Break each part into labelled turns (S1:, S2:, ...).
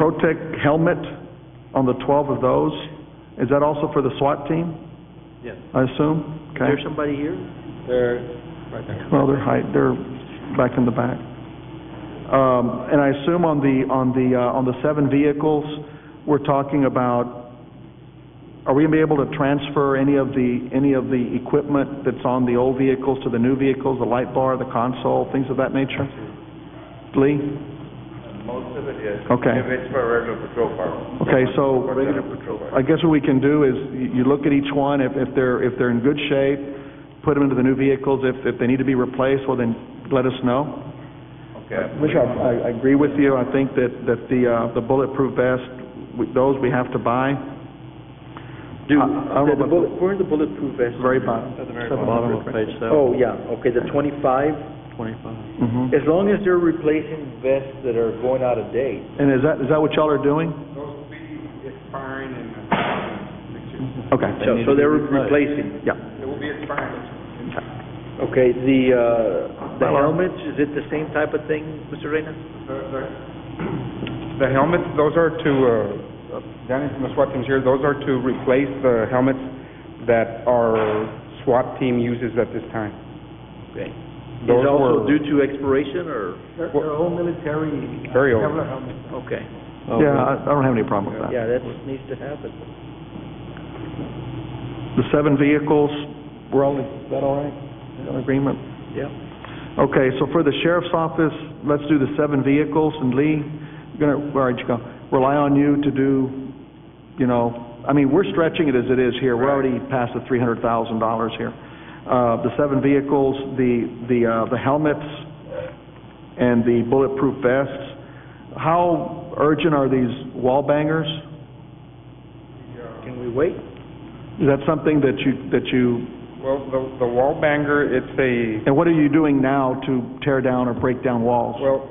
S1: Protec helmet on the 12 of those. Is that also for the SWAT team,
S2: Yes.
S1: I assume? Okay.
S2: There's somebody here? There, right there.
S1: Well, they're hide, they're back in the back. Um, and I assume on the, on the, uh, on the seven vehicles, we're talking about, are we gonna be able to transfer any of the, any of the equipment that's on the old vehicles to the new vehicles, the light bar, the console, things of that nature? Lee?
S3: Most of it is.
S1: Okay.
S3: If it's for a regular patrol car.
S1: Okay, so-
S3: For
S1: Regular
S3: the-
S1: patrol I guess what we can do is, y- you look at each one, if, if they're, if they're in good shape, put them into the new vehicles, if, if they need to be replaced, well then, let us know.
S3: Okay.
S1: Commissioner, I, I agree with you. I think that, that the, uh, the bulletproof vest, we- those we have to buy.
S2: Do, Uh,
S1: I- I don't know
S2: the
S1: about-
S2: bullet, where's the bulletproof vest?
S1: Very bottom.
S3: At the very
S4: Bottom of page seven,
S2: Oh, yeah, okay, the twenty-five,
S4: twenty-five.
S1: Mhm.
S2: as long as they're replacing vests that are going out of date.
S1: And is that, is that what y'all are doing?
S5: Those will be expiring in uh, next year.
S1: Okay.
S2: So, so they're replacing.
S1: Yeah.
S5: It will be expiring next year.
S2: Okay, the, uh, the
S1: Hello.
S2: helmets, is it the same type of thing, Mr. Reyna?
S5: The, the-
S6: The helmets, those are to, uh, Danny from the SWAT team's here, those are to replace the helmets that our SWAT team uses at this time.
S2: Okay. Is
S6: Those
S2: also
S6: were-
S2: due to expiration or,
S7: They're, they're all military. uh,
S6: Very old.
S7: Kevlar helmets.
S2: okay,
S1: Yeah, I, I don't have any problem with that.
S2: yeah, that needs to happen.
S1: The seven vehicles, we're all, is that all right? In agreement?
S2: Yeah.
S1: Okay, so for the sheriff's office, let's do the seven vehicles, and Lee, you're gonna, where are you going? Rely on you to do, you know, I mean, we're stretching it as it is here, we're already past the three hundred thousand dollars here. Uh, the seven vehicles, the, the, uh, the helmets, and the bulletproof vests. How urgent are these wall bangers?
S2: Can we wait?
S1: Is that something that you, that you,
S6: Well, the, the wall banger, it's a,
S1: and what are you doing now to tear down or break down walls?
S6: Well,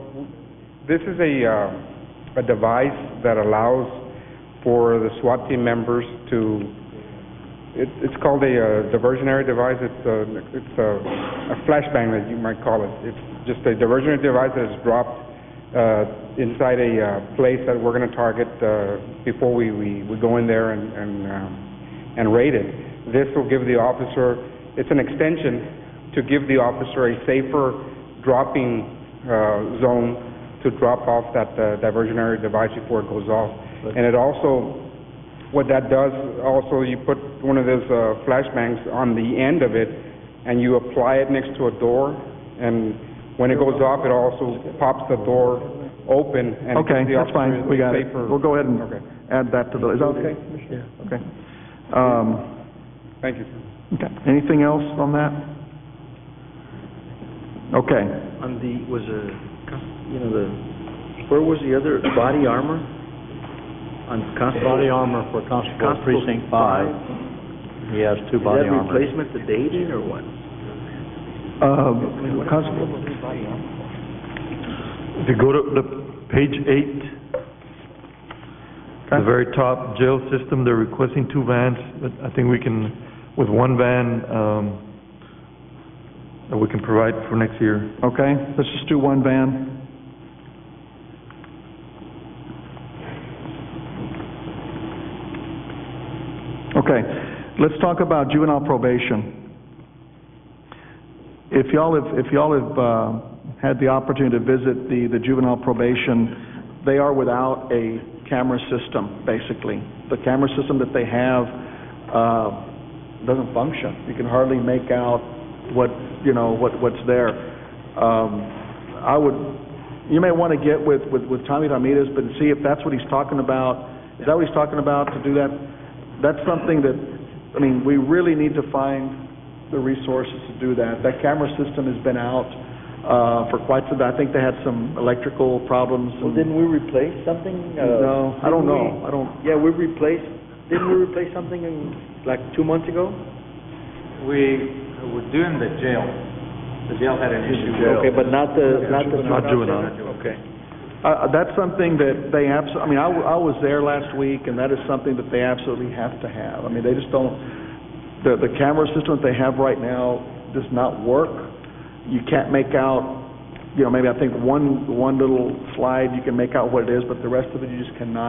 S6: this is a, uh, a device that allows for the SWAT team members to, it, it's called a uh, diversionary device, it's a, it's a, a flashbang that you might call it. It's just a diversionary device that is dropped, uh, inside a, uh, place that we're gonna target, uh, before we, we, we go in there and, and, um, and raid it. This will give the officer, it's an extension to give the officer a safer dropping uh, zone to drop off that uh, diversionary device before it goes off. And it also, what that does, also you put one of those uh, flashbangs on the end of it, and you apply it next to a door, and when it goes off, it also pops the door open, and it
S1: Okay,
S6: gives the
S1: that's
S6: officer
S1: fine, we
S6: a
S1: got it.
S6: safer-
S1: We'll go ahead and
S6: Okay.
S1: add that to the, is that okay? Yeah. Okay. Um,
S6: Thank you, sir.
S1: okay, anything else on that? Okay,
S2: On the, was a, you know, the, where was the other, body armor? On constable?
S4: Body armor for Constable
S2: Constable
S4: Precinct Five. He has two body
S2: Is that
S4: armor.
S2: replacement to dating or what?
S1: uh, Constable,
S8: If you go to the page eight, the very top, jail system, they're requesting two vans, but I think we can, with one van, um, that we can provide for next year.
S1: okay, let's just do one van. Okay, let's talk about juvenile probation. If y'all have, if y'all have, uh, had the opportunity to visit the, the juvenile probation, they are without a camera system, basically. The camera system that they have, uh, doesn't function. You can hardly make out what, you know, what, what's there. Um, I would, you may want to get with, with, with Tommy Ramirez, but see if that's what he's talking about. Is that what he's talking about, to do that? That's something that, I mean, we really need to find the resources to do that. That camera system has been out uh, for quite some, I think they had some electrical problems.
S2: Well,
S1: and-
S2: didn't we replace something? uh,
S1: No, I don't
S2: didn't
S1: know, I don't,
S2: we- Yeah, we replaced, didn't we replace something in, like, two months ago?
S5: We were doing the jail. The jail had an issue.
S2: Okay, but not the, not the...
S8: Not juvenile.
S2: Okay.
S1: uh, that's something that they abs, I mean, I w- I was there last week, and that is something that they absolutely have to have. I mean, they just don't, the, the camera system that they have right now does not work. You can't make out you know, maybe I think one, one little slide, you can make out what it is, but the rest of it, you just cannot